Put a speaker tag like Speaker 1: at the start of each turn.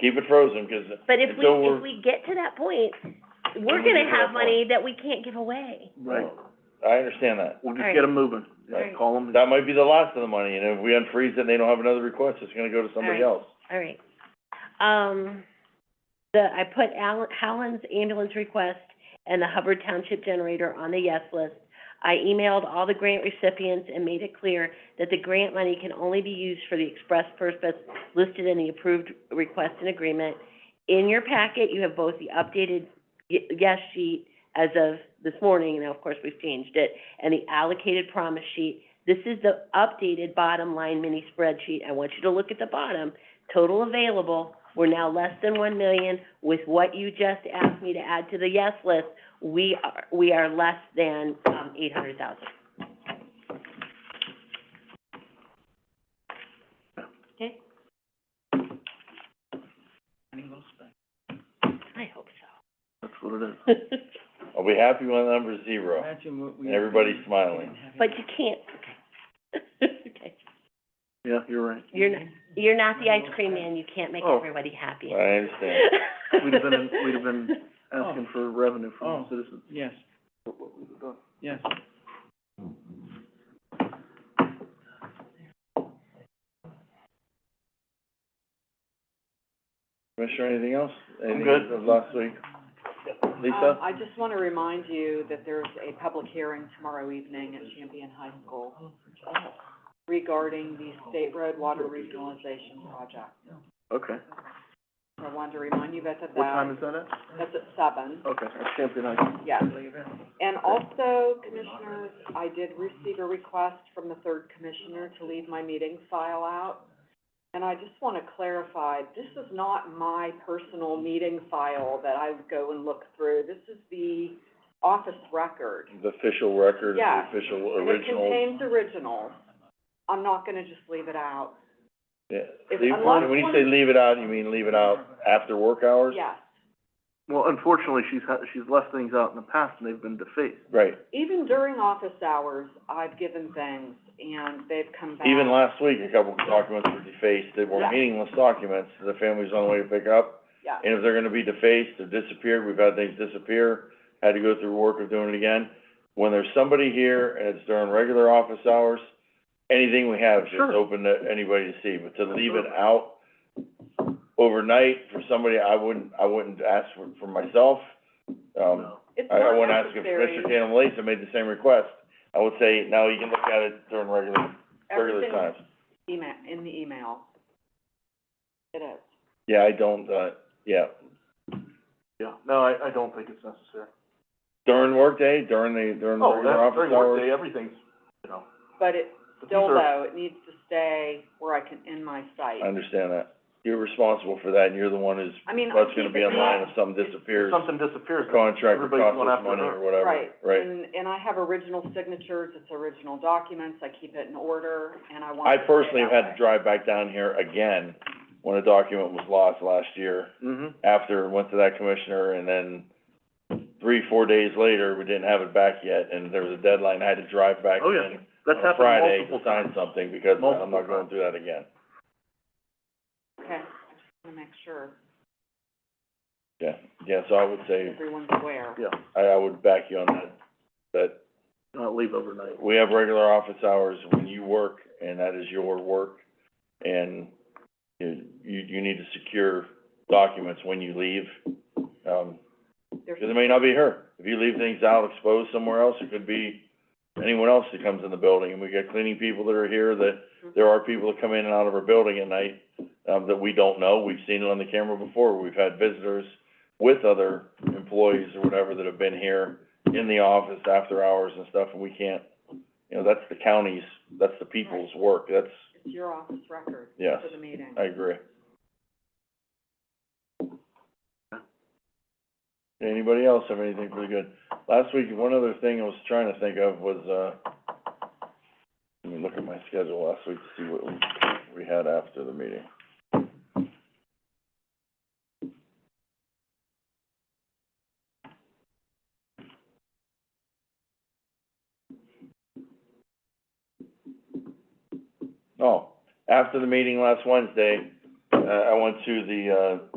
Speaker 1: keep it frozen, cause
Speaker 2: But if we,
Speaker 1: Until we're-
Speaker 2: if we get to that point, we're
Speaker 3: We'll get
Speaker 2: gonna
Speaker 3: to
Speaker 2: have
Speaker 3: that point.
Speaker 2: money that we can't give away.
Speaker 3: Right,
Speaker 1: I understand that.
Speaker 3: we'll just
Speaker 2: Alright.
Speaker 3: get them moving, Just
Speaker 2: Alright.
Speaker 3: call them,
Speaker 1: That might be the last of the money, and if we unfreeze it and they don't have another request, it's gonna go to somebody
Speaker 2: Alright.
Speaker 1: else.
Speaker 2: All right. Um, the, I put Al- Howland's ambulance request and the Hubbard Township generator on the yes list. I emailed all the grant recipients and made it clear that the grant money can only be used for the express purpose listed in the approved request and agreement. In your packet, you have both the updated y- yes sheet as of this morning, now of course we've changed it, and the allocated promise sheet. This is the updated bottom line mini spreadsheet. I want you to look at the bottom total available, we're now less than one million. With what you just asked me to add to the yes list, we are, we are less than, um, eight hundred thousand. Okay? I hope
Speaker 3: that's what it is.
Speaker 2: so.
Speaker 1: I'll be happy when the number's zero, and everybody's smiling.
Speaker 2: But you can't, okay.
Speaker 3: Yeah, you're right.
Speaker 2: You're not, you're not the ice cream man, you can't make
Speaker 3: Oh.
Speaker 2: everybody happy.
Speaker 1: I understand.
Speaker 3: We'd have been, we'd have been asking for revenue from
Speaker 4: Oh.
Speaker 3: the citizens.
Speaker 4: Yes, yes.
Speaker 1: Commissioner, anything else? Anything
Speaker 3: good.
Speaker 1: of Last week?
Speaker 5: Um,
Speaker 1: Lisa?
Speaker 5: I just want to remind you that there's a public hearing tomorrow evening at Champion High School regarding the State Road Water Regionalization Project.
Speaker 3: Okay,
Speaker 5: So I wanted to remind you both of that.
Speaker 3: what time is that at?
Speaker 5: That's at seven,
Speaker 3: Okay, that's Champion High.
Speaker 5: yes. And also, Commissioners, I did receive a request from the third commissioner to leave my meeting file out. And I just want to clarify, this is not my personal meeting file that I go and look through. This is the office record.
Speaker 1: The official record, the
Speaker 5: Yeah.
Speaker 1: official
Speaker 5: And
Speaker 1: original.
Speaker 5: It contains originals. I'm not gonna just leave it out.
Speaker 1: Yeah.
Speaker 5: If-
Speaker 1: Leave-
Speaker 5: unless
Speaker 1: When you
Speaker 5: one-
Speaker 1: say leave it out, you mean leave it out after work hours?
Speaker 5: Yes.
Speaker 3: Well, unfortunately, she's ha- she's left things out in the past and they've been defaced.
Speaker 1: Right.
Speaker 5: Even during office hours, I've given things and they've come back.
Speaker 1: Even last week, a couple of documents were defaced, they were
Speaker 5: Yeah.
Speaker 1: meaningless documents, the family's on the way to pick up.
Speaker 5: Yeah.
Speaker 1: And if they're gonna be defaced or disappeared, we've had things disappear, had to go through work of doing it again. When there's somebody here and it's during regular office hours, anything we have is just
Speaker 3: Sure.
Speaker 1: open to anybody to see, but to leave it out overnight for somebody, I wouldn't, I wouldn't ask for, for myself. Um,
Speaker 3: No.
Speaker 5: It's
Speaker 1: I, I
Speaker 5: not
Speaker 1: wouldn't ask if
Speaker 5: necessary.
Speaker 1: Mr. Tatum Lacy made the same request, I would say, no, you can look at it during regular, regular
Speaker 5: Everything
Speaker 1: times.
Speaker 5: Email, in the email. It is.
Speaker 1: Yeah, I don't, uh, yeah,
Speaker 3: Yeah, no, I, I don't think it's necessary.
Speaker 1: during workday, during the, during the
Speaker 3: Oh,
Speaker 1: regular
Speaker 3: that's,
Speaker 1: office
Speaker 3: during
Speaker 1: hours.
Speaker 3: workday, everything's, you know,
Speaker 5: But it,
Speaker 3: but these
Speaker 5: still
Speaker 3: are,
Speaker 5: though, it needs to stay where I can, in my site.
Speaker 1: I understand that. You're responsible for that, and you're the one who's,
Speaker 5: I mean, I
Speaker 1: that's gonna
Speaker 5: keep
Speaker 1: be
Speaker 5: it
Speaker 1: in line if
Speaker 5: up.
Speaker 1: something
Speaker 3: if
Speaker 1: disappears,
Speaker 3: something disappears,
Speaker 1: contract
Speaker 3: everybody's
Speaker 1: costs
Speaker 3: going
Speaker 1: us
Speaker 3: after
Speaker 1: money
Speaker 3: her.
Speaker 1: or whatever,
Speaker 5: Right,
Speaker 1: right?
Speaker 5: and, and I have original signatures, it's original documents, I keep it in order, and I want
Speaker 1: I
Speaker 5: it to stay
Speaker 1: personally have
Speaker 5: that
Speaker 1: had to
Speaker 5: way.
Speaker 1: drive back down here again when a document was lost last year,
Speaker 3: mhm,
Speaker 1: after it went to that commissioner, and then three, four days later, we didn't have it back yet, and there was a deadline, I had to drive back
Speaker 3: Oh, yeah.
Speaker 1: in
Speaker 3: that's
Speaker 1: on Friday to
Speaker 3: happened multiple
Speaker 1: sign
Speaker 3: times.
Speaker 1: something, because I'm
Speaker 3: Multiple
Speaker 1: not going
Speaker 3: times.
Speaker 1: through that again.
Speaker 5: Okay, I just wanna make sure
Speaker 1: Yeah, yeah, so I would say,
Speaker 5: everyone's aware.
Speaker 3: Yeah,
Speaker 1: I, I would back you on that, that
Speaker 3: not leave overnight.
Speaker 1: we have regular office hours when you work, and that is your work, and you, you, you need to secure documents when you leave. Um,
Speaker 5: There's-
Speaker 1: because it may not be her. If you leave things out exposed somewhere else, it could be anyone else that comes in the building. And we got cleaning people that are here, that there are people that come in and out of our building at night, um, that we don't know. We've seen it on the camera before. We've had visitors with other employees or whatever that have been here in the office after hours and stuff, and we can't, you know, that's the county's, that's the people's work. That's,
Speaker 5: It's your office record
Speaker 1: yes,
Speaker 5: for the meeting.
Speaker 1: I agree. Anybody else have anything for the good? Last week, one other thing I was trying to think of was, uh, let me look at my schedule last week to see what we, we had after the meeting. Oh, after the meeting last Wednesday, uh, I, I went to the, uh,